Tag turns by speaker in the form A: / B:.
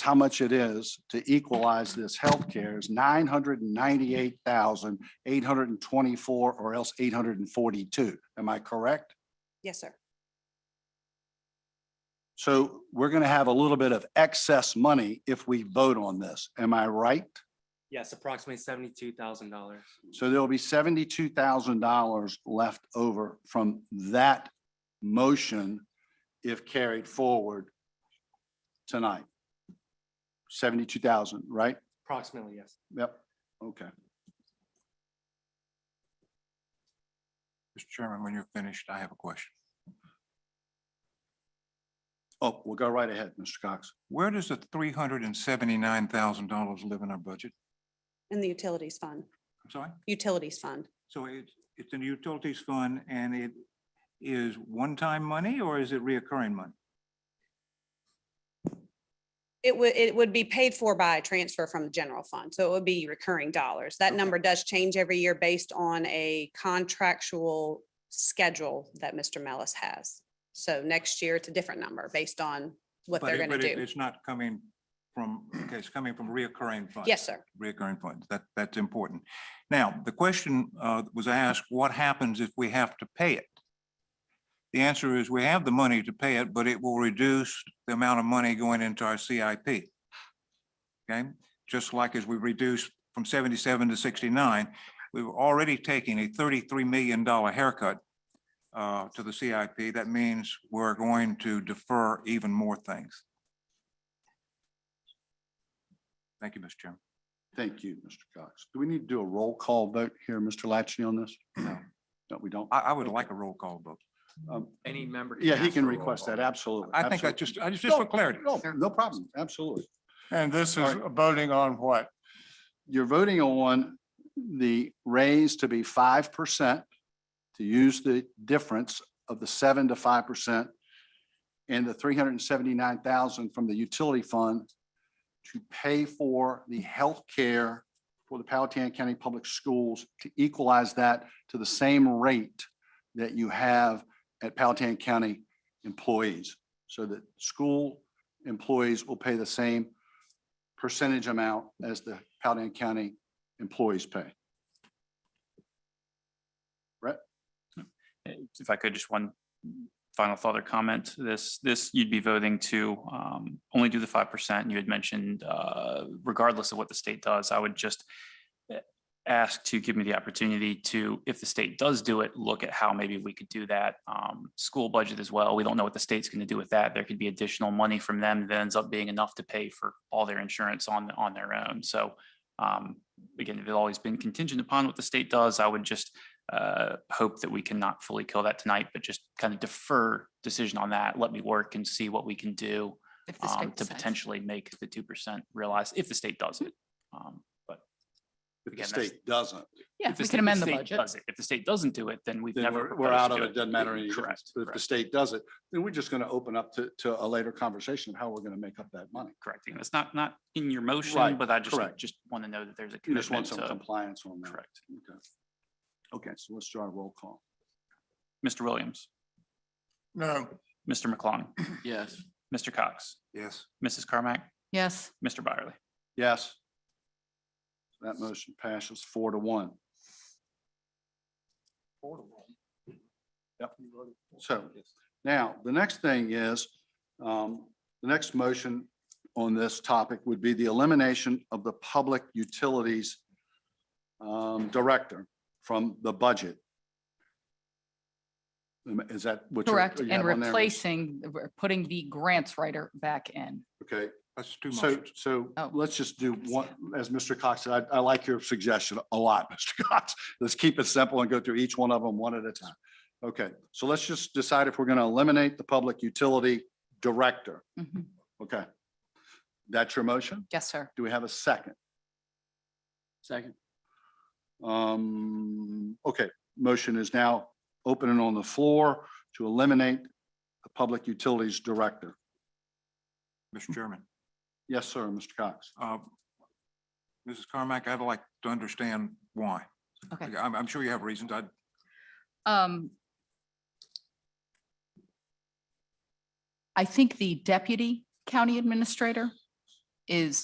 A: how much it is to equalize this healthcare is nine hundred and ninety-eight thousand, eight hundred and twenty-four, or else eight hundred and forty-two. Am I correct?
B: Yes, sir.
A: So we're going to have a little bit of excess money if we vote on this. Am I right?
C: Yes, approximately seventy-two thousand dollars.
A: So there will be seventy-two thousand dollars left over from that motion if carried forward tonight. Seventy-two thousand, right?
C: Approximately, yes.
A: Yep, okay.
D: Mr. Chairman, when you're finished, I have a question.
A: Oh, we'll go right ahead, Mr. Cox.
D: Where does the three hundred and seventy-nine thousand dollars live in our budget?
B: In the utilities fund,
D: I'm sorry?
B: utilities fund.
D: So it's, it's in the utilities fund and it is one-time money or is it reoccurring money?
B: It would, it would be paid for by a transfer from the general fund. So it would be recurring dollars. That
D: Okay.
B: number does change every year based on a contractual schedule that Mr. Mellis has. So next year, it's a different number based on what
D: But
B: they're
D: it-
B: going to
D: but it-
B: do.
D: It's not coming from, okay, it's coming from reoccurring funds.
B: Yes, sir.
D: Recurring funds. That, that's important. Now, the question uh, was asked, what happens if we have to pay it? The answer is we have the money to pay it, but it will reduce the amount of money going into our CIP. Okay, just like as we reduced from seventy-seven to sixty-nine, we were already taking a thirty-three million dollar haircut uh, to the CIP. That means we're going to defer even more things. Thank you, Mr. Chairman.
A: Thank you, Mr. Cox. Do we need to do a roll call vote here, Mr. Latchney, on this? No. No, we don't.
D: I, I would like a roll call vote.
A: Um,
C: Any member.
A: Yeah, he can
C: ask for a roll
A: request
C: call.
A: that, absolutely.
D: I think I
A: absolutely.
D: just, I just, just for
A: No,
D: clarity.
A: No, no problem, absolutely.
E: And this
A: All
E: is voting on what?
A: You're voting on the raise to be five percent, to use the difference of the seven to five percent and the three hundred and seventy-nine thousand from the utility fund to pay for the health care for the Palatine County Public Schools to equalize that to the same rate that you have at Palatine County employees. So that school employees will pay the same percentage amount as the Palatine County employees pay.
F: if I could, just one final thought or comment, this, this, you'd be voting to um, only do the five percent. You had mentioned uh, regardless of what the state does, I would just eh, ask to give me the opportunity to, if the state does do it, look at how maybe we could do that. um, School budget as well. We don't know what the state's going to do with that. There could be additional money from them that ends up being enough to pay for all their insurance on, on their own. So um, again, if it's always been contingent upon what the state does, I would just uh, hope that we can not fully kill that tonight, but just kind of defer decision on that. Let me work and see what we can do
G: If the
F: um,
G: state
F: to
G: decides.
F: potentially make the two percent realize if the state does it. Um, But
A: If the
F: Again, that's-
A: state doesn't,
G: Yeah,
F: if the
G: we
F: state-
G: can
F: if
G: amend the
F: state
G: budget.
F: does it, If the state doesn't do it, then we've
A: then
F: never.
A: we're, we're
F: proposed
A: out
F: to
A: of
F: do
A: it, doesn't matter any difference.
F: Correct.
A: But if the
F: correct,
A: state does it, then we're just going to open up to, to a later conversation of how we're going to make up that money.
F: Correct. And It's not, not in your motion,
A: Right,
F: but I just,
A: correct.
F: just want to know that there's a
A: You just want
F: commitment
A: some
F: to,
A: compliance on that.
F: correct.
A: Okay. Okay, so let's do our roll call.
F: Mr. Williams,
E: No.
F: Mr. McClung,
C: Yes.
F: Mr. Cox,
D: Yes.
F: Mrs. Carmack,
G: Yes,
F: Mr. Byerly.
A: Yes. That motion passes four to one. Yep. So now, the next thing is, um, the next motion on this topic would be the elimination of the public utilities um, director from the budget. Um, Is that what? you're-
G: correct.
A: you
G: And
A: have on there?
G: replacing, putting the grants writer back in.
A: Okay,
D: That's too
A: so,
D: much.
A: so
G: Oh.
A: let's just do one, as Mr. Cox said, I, I like your suggestion a lot, Mr. Cox. Let's keep it simple and go through each one of them one at a time. Okay, so let's just decide if we're going to eliminate the public utility director.
G: Mhm.
A: Okay. That's your motion?
G: Yes, sir.
A: Do we have a second?
C: Second.
A: Um, okay, motion is now open and on the floor to eliminate the public utilities director.
D: Mr. Chairman,
A: Yes, sir, Mr. Cox.
D: uh, Mrs. Carmack, I'd like to understand why.
G: Okay.
D: I'm, I'm sure you have reasons. I,
G: Um, I think the deputy county administrator is